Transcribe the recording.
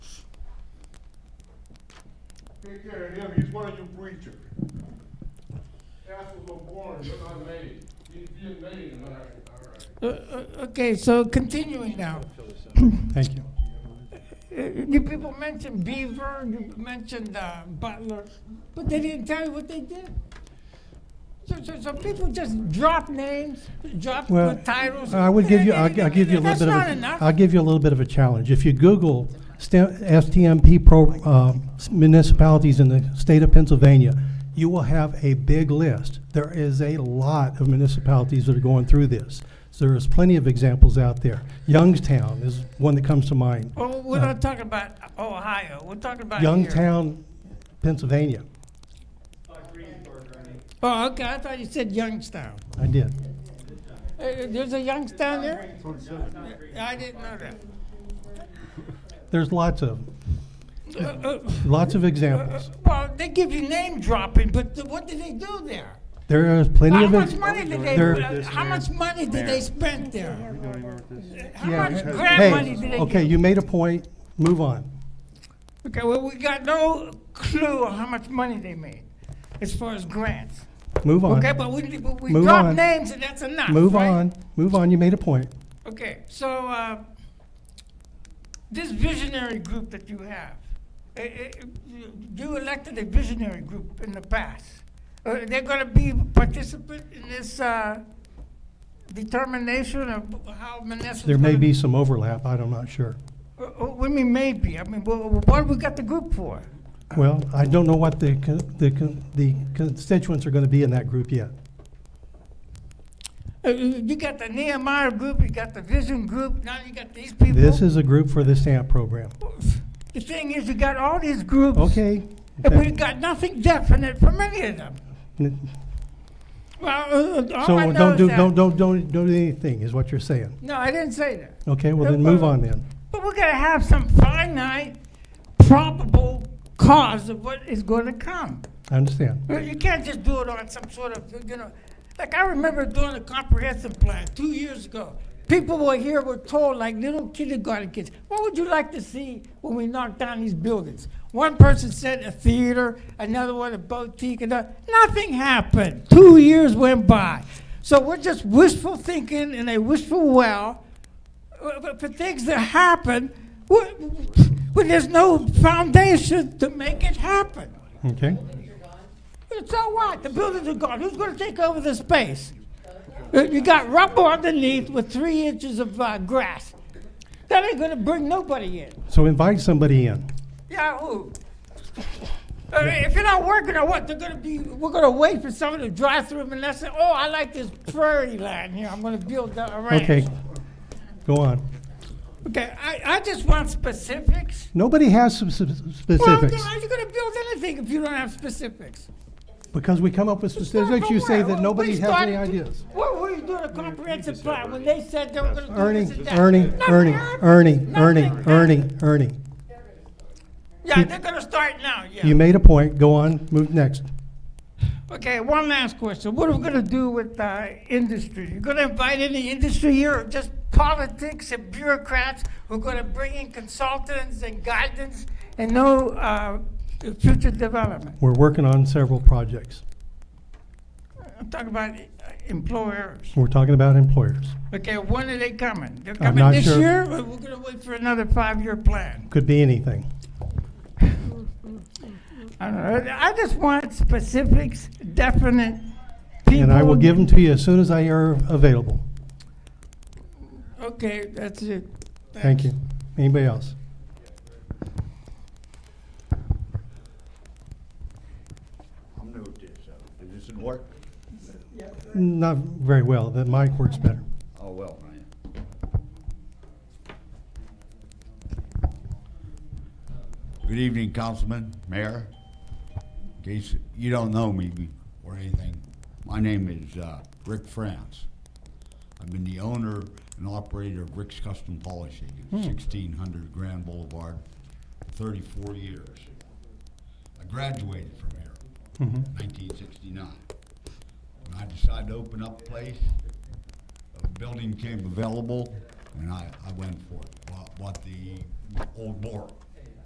Take care of him, he's one of your preachers. Pastors are born, they're not made. He's being made in America, all right. Uh, uh, Okay, so continuing now. Thank you. Uh, You people mentioned Beaver, you mentioned uh, Butler, but they didn't tell you what they did. So, so, so people just drop names, drop Well, the titles. I would give you, I'll I'll give you a little That's bit of, not a- enough. I'll give you a little bit of a challenge. If you Google sta- STMP pro- uh, municipalities in the state of Pennsylvania, you will have a big list. There is a lot of municipalities that are going through this. So there is plenty of examples out there. Youngstown is one that comes to mind. Well, Oh, we're No. not talking about Ohio. We're talking about here. Youngtown, Pennsylvania. Oh, okay. I thought you said Youngstown. I did. Uh, there's a Youngstown there. I didn't know that. There's lots of, Uh, uh, lots of uh, examples. well, they give you name dropping, but th- what do they do there? There is plenty How of. much ex- money did they, there- uh, how much money did they spend there? How Yeah. much grant Hey, money did they Okay, get? you made a point, move on. Okay, well, we got no clue how much money they made as far as grants. Move on. Okay, but we, but we Move dropped on. names and that's enough, Move right? on, move on, you made a point. Okay, so, uh, this visionary group that you have, eh, eh, you- you elected a visionary group in the past. Are they gonna be participant in this, uh, determination of how Menneson? There may be some overlap, I'm not sure. What do you uh, mean maybe? I mean, wh- wh- what we got the group for? Well, I don't know what the, con- the, con- the constituents are gonna be in that group yet. Uh, You you got the Nehemiah group, you got the Vision group, now you got these people. This is a group for the stamp program. The thing is, you got all these groups. Okay. And we got nothing definite from any of them. Well, uh, uh, all I So know don't is do, that- don't, don't, don't do anything, is what you're saying. No, I didn't say that. Okay, well then Don't- move on then. But we're gonna have some finite, probable cause of what is gonna come. I understand. You you can't just do it on some sort of, you know, like I remember doing a comprehensive plan two years ago. People were here were told like little kindergarten kids, what would you like to see when we knock down these buildings? One person said a theater, another one a boutique, and nothing happened. Two years went by. So we're just wishful thinking in a wishful well uh, for for things that happen wh- when there's no foundation to make it happen. Okay? So what? The buildings are gone. Who's going to take over the space? Uh, You got rubble underneath with three inches of uh, grass. That ain't going to bring nobody in. So invite somebody in. Yahoo! I mean, if you're not working on what they're going to be, we're going to wait for someone to drive through Manassas. Oh, I like this prairie land here. I'm going to build a ranch. Okay. Go on. Okay. I, I just want specifics. Nobody has some s- Well, specifics. how are you going to build anything if you don't have specifics? Because we come up with Start specifics, from you say where? that Well, nobody we has started any to- ideas. What were you doing a comprehensive plan when they said they were gonna do Ernie, this and that? Ernie, Nothing Ernie, happened. Ernie, Ernie, Nothing Ernie, happened. Ernie. Yeah, they're gonna start now, You yeah. made a point, go on, move next. Okay, one last question. What are we gonna do with, uh, industry? You gonna invite any industry here or just politics and bureaucrats who are gonna bring in consultants and guidance and no, uh, future development? We're working on several projects. I'm talking about uh, employers. We're talking about employers. Okay, when are they coming? They're I'm coming not this sure. year or we're gonna wait for another five-year plan? Could be anything. I don't know. I just want specifics, definite people. And I will give them to you as soon as I are available. Okay, that's it. Thank you. Anybody else? I'm new at this, so it doesn't work. Not very well, that mic works better. Oh, well, man. Good evening, Councilman, Mayor. In case you don't know me or anything, my name is uh, Rick France. I've been the owner and operator of Rick's Custom Polishing at sixteen hundred Grand Boulevard, thirty-four years. I graduated from here, nineteen sixty-nine. When I decided to open up a place, a building came available, and I, I went for it, bought, bought the old Laurel.